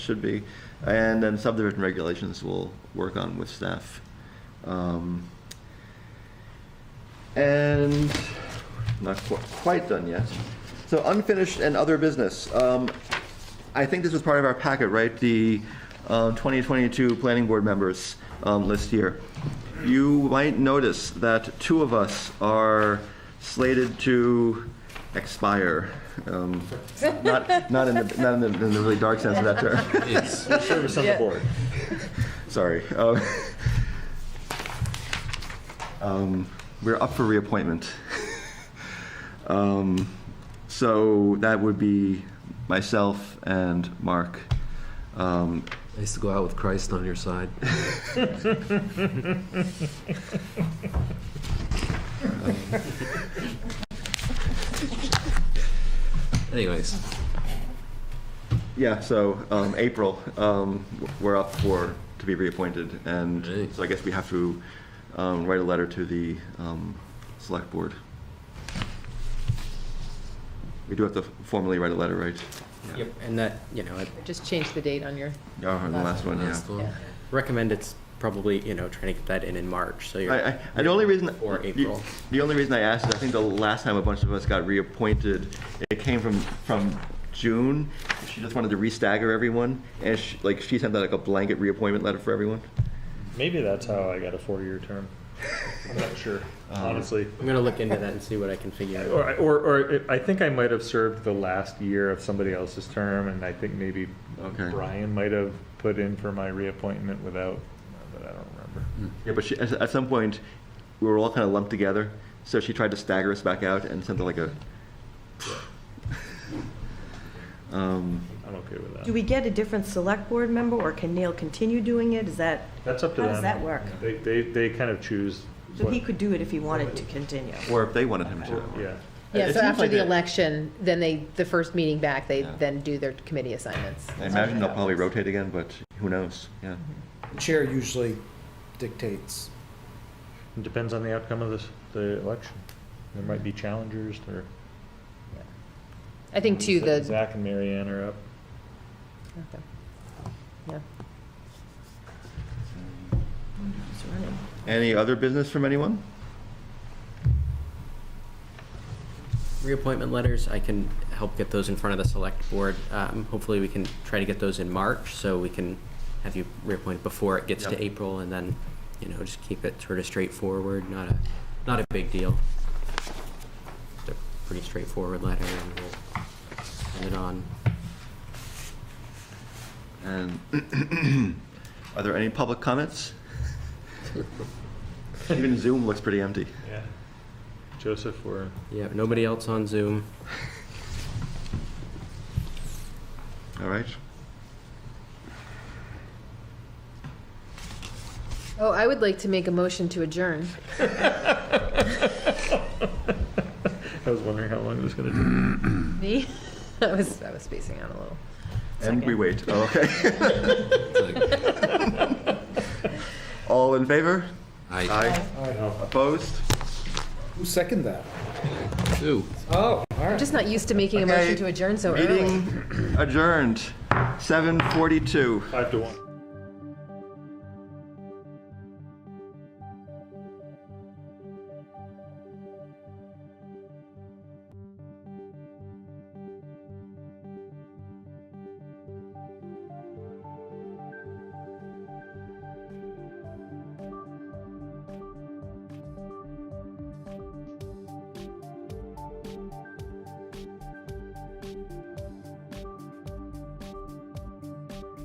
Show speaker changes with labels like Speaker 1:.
Speaker 1: should be. And then subdivision regulations we'll work on with staff. Um, And not qu- quite done yet. So unfinished and other business. Um, I think this was part of our packet, right? The um, 2022 Planning Board members um, list here. You might notice that two of us are slated to expire. Um, Not, not in the, not in the in the really dark sense of that term.
Speaker 2: Service on the board.
Speaker 1: Sorry. Um, um, We're up for reappointment. Um, So that would be myself and Mark. Um,
Speaker 3: Nice to go out with Christ on your side. Anyways,
Speaker 1: Yeah, so um, April, um, we're up for, to be reappointed. And
Speaker 3: Great.
Speaker 1: so I guess we have to um, write a letter to the um, Select Board. We do have to formally write a letter, right?
Speaker 4: Yep, and that, you know, I
Speaker 5: Just change the date on your,
Speaker 1: Yeah, Oh, on the last one, yeah.
Speaker 3: last one.
Speaker 5: yeah.
Speaker 4: recommend it's probably, you know, trying to get that in in March, so you're.
Speaker 1: I, I, and the only reason
Speaker 4: Or
Speaker 1: the-
Speaker 4: April.
Speaker 1: The, only reason I asked is I think the last time a bunch of us got reappointed, it came from from June. She just wanted to restagger everyone, and she, like she sent out like a blanket reappointment letter for everyone.
Speaker 2: Maybe that's how I got a four-year term. I'm not sure, honestly.
Speaker 4: I'm gonna look into that and see what I can figure out.
Speaker 2: Or, or, or I think I might have served the last year of somebody else's term, and I think maybe
Speaker 1: Okay.
Speaker 2: Brian might have put in for my reappointment without, but I don't remember.
Speaker 1: Yeah, but she, at, at some point, we were all kind of lumped together, so she tried to stagger us back out and sent out like a. um,
Speaker 2: I'm okay with that.
Speaker 6: Do we get a different select board member, or can Neil continue doing it? Is that,
Speaker 2: That's up to
Speaker 6: How
Speaker 2: them.
Speaker 6: does that work?
Speaker 2: They, they, they kind of choose.
Speaker 6: so
Speaker 2: what-
Speaker 6: he could do it if he wanted to continue?
Speaker 1: or if they wanted him to.
Speaker 2: Yeah.
Speaker 5: Yeah,
Speaker 1: It
Speaker 5: so
Speaker 1: seems
Speaker 5: after
Speaker 1: like
Speaker 5: the
Speaker 1: they-
Speaker 5: election, then they, the first meeting back, they
Speaker 1: Yeah.
Speaker 5: then do their committee assignments.
Speaker 1: I imagine they'll probably rotate again, but who knows? Yeah.
Speaker 7: chair usually dictates.
Speaker 2: It Depends on the outcome of this, the election. There might be challengers, there.
Speaker 5: I think too, the,
Speaker 2: Zach and Marianne are up.
Speaker 5: Okay. yeah.
Speaker 1: Any other business from anyone?
Speaker 4: Reappointment letters, I can help get those in front of the select board. Um, hopefully we can try to get those in March, so we can have you reappointed before it gets
Speaker 1: Yep.
Speaker 4: to April, and then, you know, just keep it sort of straightforward, not a, not a big deal. Just a Pretty straightforward letter, and we'll send it on.
Speaker 1: And are there any public comments? Even Zoom looks pretty empty.
Speaker 2: Yeah. Joseph or?
Speaker 4: Yeah, nobody else on Zoom.
Speaker 1: All right.
Speaker 5: Oh, I would like to make a motion to adjourn.
Speaker 2: I was wondering how long it was gonna take.
Speaker 5: Me? I was, I was spacing out a little.
Speaker 1: And we wait. Oh, Okay.
Speaker 3: It's like,
Speaker 1: All in favor?
Speaker 3: I
Speaker 1: Aye. Opposed?
Speaker 7: Who second that?
Speaker 3: do.
Speaker 7: Oh, all
Speaker 5: I'm
Speaker 7: right.
Speaker 5: just not used to making a
Speaker 1: Okay,
Speaker 5: motion to adjourn so early.
Speaker 1: Meeting adjourned, 7:42.
Speaker 2: Five to one.